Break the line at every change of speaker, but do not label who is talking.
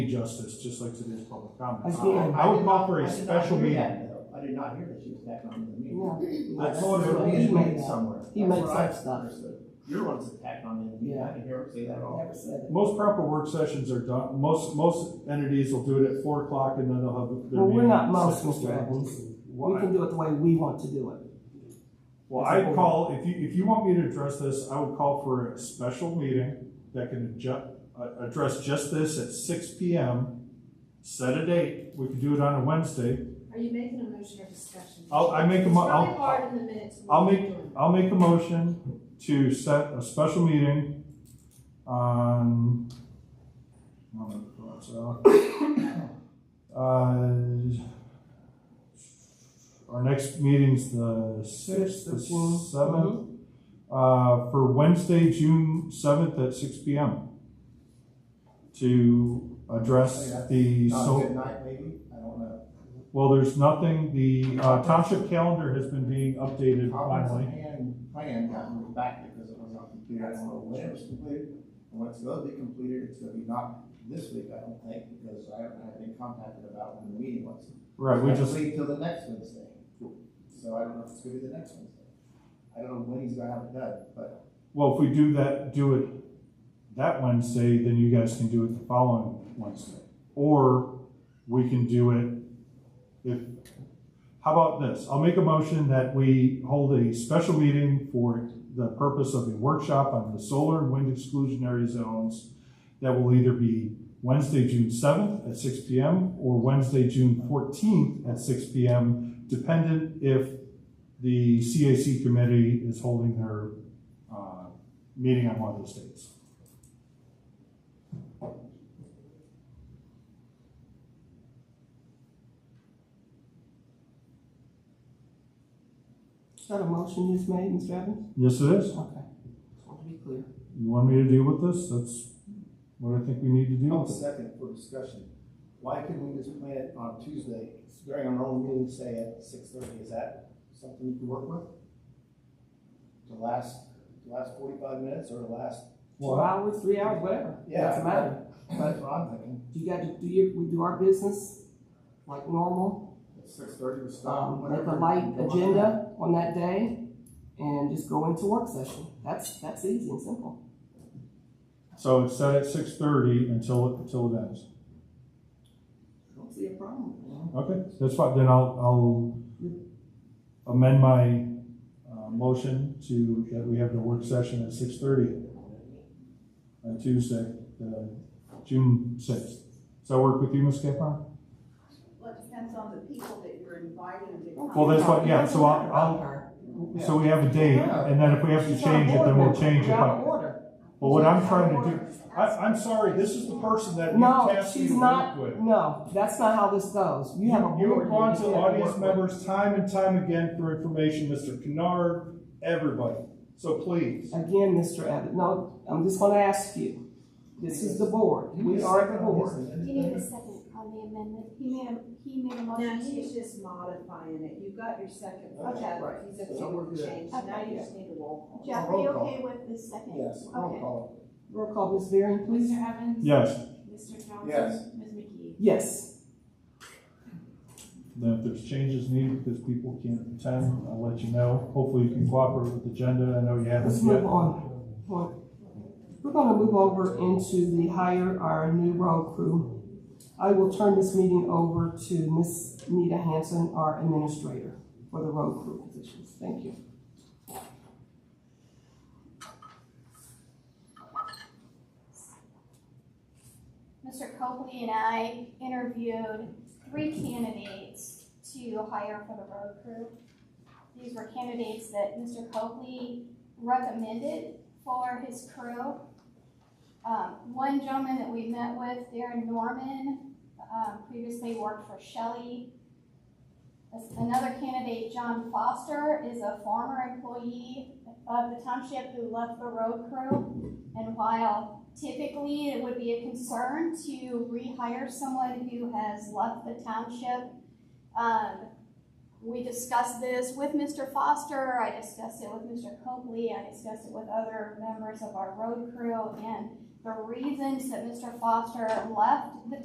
justice, just like today's public comment. Uh,
I see.
I would call for
I
a
did not
special
hear
meeting.
that, though. I did not hear that she was back on the meeting.
No.
I told her
He
it was
made
made
that.
somewhere.
He
That's
made
what I
some stuff.
understood. You're the one that's attacking on the meeting. I didn't hear her say that at all.
Never said it.
Most proper work sessions are done, most, most entities will do it at four o'clock and then they'll have their meeting.
Well, we're not
at
most,
six
Mr.
o'clock.
Evans. We
Why?
can do it the way we want to do it.
Well, I'd call, if you, if you want me to address this, I would call for a special meeting that can adju- uh, address just this at six P M. Set a date, we could do it on a Wednesday.
Are you making a motion or discussion?
I'll, I make a mo-
It's probably
I'll,
hard in the minutes. when
I'll
you're
make-
doing
I'll make a motion to set a special meeting on, I don't know what it's out. Uh, our next meeting's the sixth, the
Sixth of June.
seventh, uh, for Wednesday, June seventh at six P M. To address the,
Oh, Not a
so,
good night, maybe? I don't know.
well, there's nothing, the uh, township calendar has been being updated
Comprehensive
finally.
plan, plan got moved back because it was not completed. I don't know when it was completed. And when it's gonna be completed, it's gonna be not this week, I don't think, because I haven't had been contacted about when the meeting was.
Right, we
Let's
just,
Wait till the next Wednesday. So I don't know if it's gonna be the next Wednesday. I don't know when he's gonna have it done, but
well, if we do that, do it that Wednesday, then you guys can do it the following Wednesday. Or we can do it if, how about this? I'll make a motion that we hold a special meeting for the purpose of a workshop on the solar and wind exclusionary zones that will either be Wednesday, June seventh at six P M. or Wednesday, June fourteenth at six P M., dependent if the CAC committee is holding their uh, meeting on one of those dates.
Is that a motion he's made, Mr. Evans?
Yes, it is.
Okay. Just want to be clear.
You want me to deal with this? That's what I think we need to deal
I'll
with. it.
second for discussion. Why couldn't we just plan it on Tuesday, during our own meeting, say at six thirty, is that something you can work with? The last, the last forty-five minutes or the last,
Two hours, three hours, whatever.
Yeah.
Doesn't matter.
that's what I'm thinking.
You got to do your, we do our business like normal.
Six thirty was
Um, make a light agenda on that day and just go into work session. That's, that's easy and simple.
So it's set at six thirty until, until it ends.
I don't see a problem.
Okay, that's fine. Then I'll, I'll amend my, uh, motion to, that we have the work session at six thirty on Tuesday, uh, June sixth. Does that work with you, Ms. Capron?
Well, it depends on the people that you're inviting to come.
Well, that's what- yeah, so I'll- I'll-
I'll.
So we have a date, and then if we have to change it, then we'll change it.
You're out
But
of order.
but what I'm trying to do, I, I'm sorry, this is the person that you
No,
tasked me
she's
to
not,
work with.
no, that's not how this goes. You have a board.
You have gone to
that you have
audience
work with.
members time and time again for information, Mr. Kennard, everybody. So please,
Again, Mr. Evans, no, I'm just gonna ask you. This is the board. We are the board.
You need a second on the amendment. He made a, he made a
Now,
motion
he's
to.
just modifying it. You got your second,
Okay.
okay,
Right.
he's
So
okay
we're
with
good.
the change. Now
Okay.
you just need a roll
Jeff, are you okay with the second?
Yes, roll
Okay.
call.
Roll call, Ms. Varian, please.
Mr. Evans?
yes,
Mr. Johnson?
Yes.
Ms. McKee?
Yes,
then if there's changes needed because people can't attend, I'll let you know. Hopefully you can cooperate with the agenda. I know you haven't
let's
yet.
move on. Hold. We're gonna move over into the hire our new road crew. I will turn this meeting over to Ms. Nita Hanson, our administrator for the road crew positions. Thank you.
Mr. Copley and I interviewed three candidates to hire for the road crew. These were candidates that Mr. Copley recommended for his crew. Um, one gentleman that we met with, Darren Norman, um, previously worked for Shelley. This- Another candidate, John Foster, is a former employee of the township who left the road crew. And while Typically, it would be a concern to rehire someone who has left the township. Um, we discussed this with Mr. Foster, I discussed it with Mr. Copley, I discussed it with other members of our road crew, and the reasons that Mr. Foster left the